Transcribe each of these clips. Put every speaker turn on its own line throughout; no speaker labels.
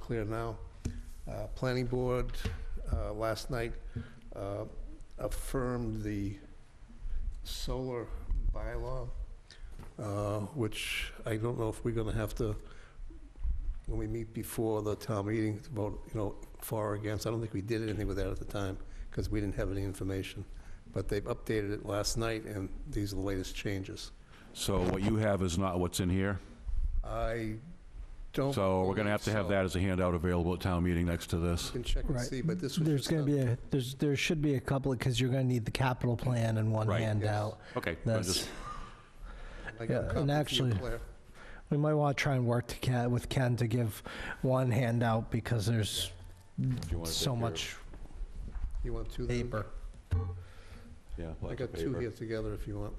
clear now. Uh, Planning Board uh, last night uh, affirmed the solar bylaw, uh, which I don't know if we're going to have to, when we meet before the town meeting, to vote, you know, for or against. I don't think we did anything with that at the time because we didn't have any information. But they've updated it last night, and these are the latest changes.
So what you have is not what's in here?
I don't.
So we're going to have to have
believe
that as a handout available at town meeting next to
so.
this.
Can check and
Right.
see, but this was.
There's going to be a, there's, there should be a couple, because you're going to need the capital plan in one
Right.
handout.
Okay. I'm
That's,
just-
yeah, and actually- we might want to try and work to Ken, with Ken to give one handout, because there's
if you wanna
so
take your-
much
You want two then?
paper.
Yeah.
I
lots
got
of
two
paper.
here together if you want.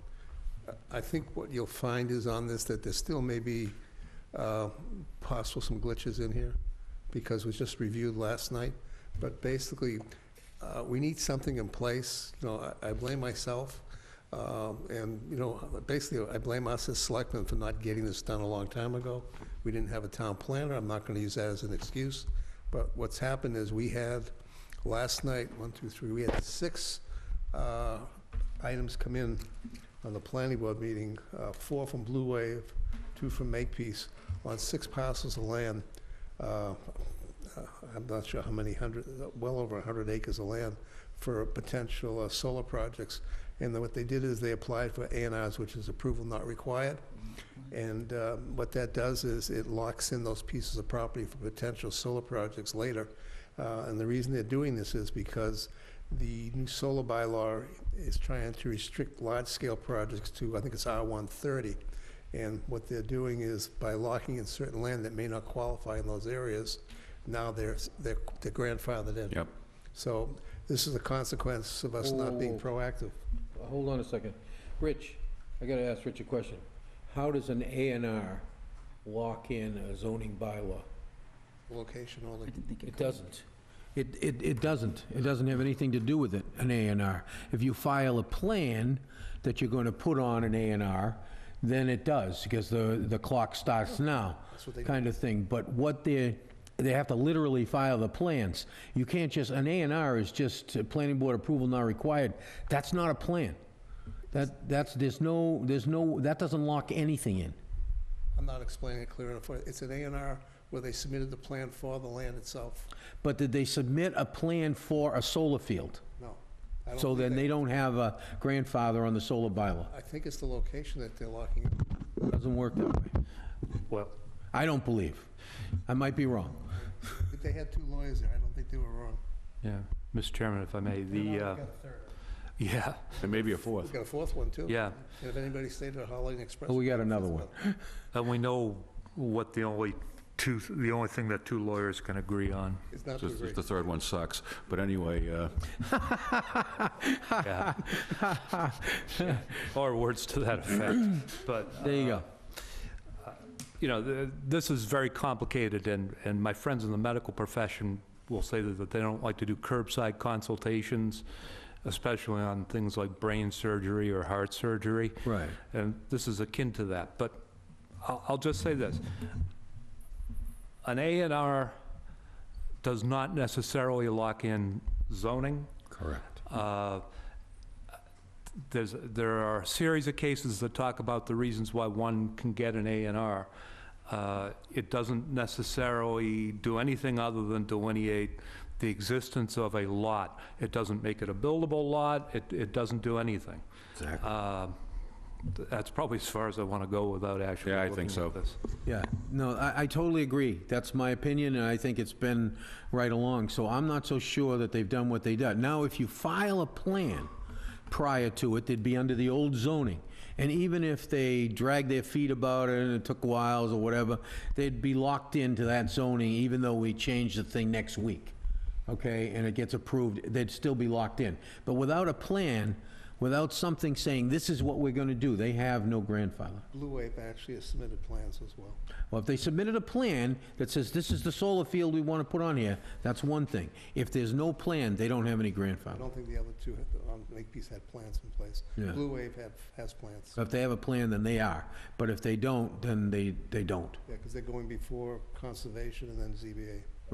I- I think what you'll find is on this that there still may be uh, possible some glitches in here because it was just reviewed last night. But basically, uh, we need something in place, you know, I I blame myself. um, And, you know, basically, I blame us as selectmen for not getting this done a long time ago. We didn't have a town planner, I'm not going to use that as an excuse. But what's happened is we had, last night, one, two, three, we had six uh, items come in on the planning board meeting, uh, four from Blue Wave, two from Makepeace, on six parcels of land. uh, uh, I'm not sure how many hundred, well over 100 acres of land for potential uh, solar projects. And then what they did is they applied for A and Rs, which is approval not required. And uh, what that does is it locks in those pieces of property for potential solar projects later. Uh, And the reason they're doing this is because the new solar bylaw is trying to restrict large-scale projects to, I think it's R130. And what they're doing is by locking in certain land that may not qualify in those areas, now they're, they're they're grandfathered in.
Yep.
So this is a consequence of us not being
Oh.
proactive.
Hold on a second. Rich, I gotta ask Rich a question. How does an A and R lock in a zoning bylaw?
Location only.
It doesn't. It, it, it doesn't. It doesn't have anything to do with it, an A and R. If you file a plan that you're gonna put on an A and R, then it does, because the, the clock starts now,
Oh. what they-
kind of thing. But what they, they have to literally file the plans. You can't just, an A and R is just uh, planning board approval not required. That's not a plan. That, that's, there's no, there's no, that doesn't lock anything in.
I'm not explaining it clear enough. for you. It's an A and R where they submitted the plan for the land itself.
But did they submit a plan for a solar field?
No. I don't
So
think
then they don't have a grandfather on the solar bylaw.
I think it's the location that they're locking. in.
Doesn't work that way.
Well,
I don't believe. I might be wrong.
If They had two lawyers there. I don't think they were wrong.
yeah, Mr. Chairman, if I may, the, uh, yeah,
And maybe a
We've
fourth.
got a fourth one, too.
yeah.
And if anybody stayed at Holiday Express.
Oh, we got another one.
And uh, we know what the only two, the only thing that two lawyers can agree on.
It's not too
Just-
great.
just The third one sucks. But anyway, uh,
Yeah. Or words to that effect. But, uh,
There you go.
you know, th- this is very complicated, and, and my friends in the medical profession will say that that they don't like to do curbside consultations, especially on things like brain surgery or heart surgery.
Right.
and this is akin to that, but I'll, I'll just say this. An A and R does not necessarily lock in zoning.
Correct.
Uh, There's, there are a series of cases that talk about the reasons why one can get an A and R. Uh, It doesn't necessarily do anything other than delineate the existence of a lot. It doesn't make it a buildable lot, it, it doesn't do anything. Uh, th- That's probably as far as I want to go without actually
Yeah, I think
looking
so.
at this.
Yeah, no, I, I totally agree. That's my opinion, and I think it's been right along. So I'm not so sure that they've done what they done. Now, if you file a plan prior to it, they'd be under the old zoning. And even if they dragged their feet about it and it took whiles or whatever, they'd be locked into that zoning even though we change the thing next week. Okay, and it gets approved, they'd still be locked in. But without a plan, without something saying, this is what we're gonna do, they have no grandfather.
Blue Wave actually has submitted plans as well.
Well, if they submitted a plan that says, this is the solar field we want to put on here, that's one thing. If there's no plan, they don't have any
I
grandfather.
don't think the other two had, um, Makepeace had plans in place.
Yeah. Uh,
Blue Wave have, has plans.
So if they have a plan, then they are. But if they don't, then they, they don't.
Yeah, because they're going before Conservation and then ZBA.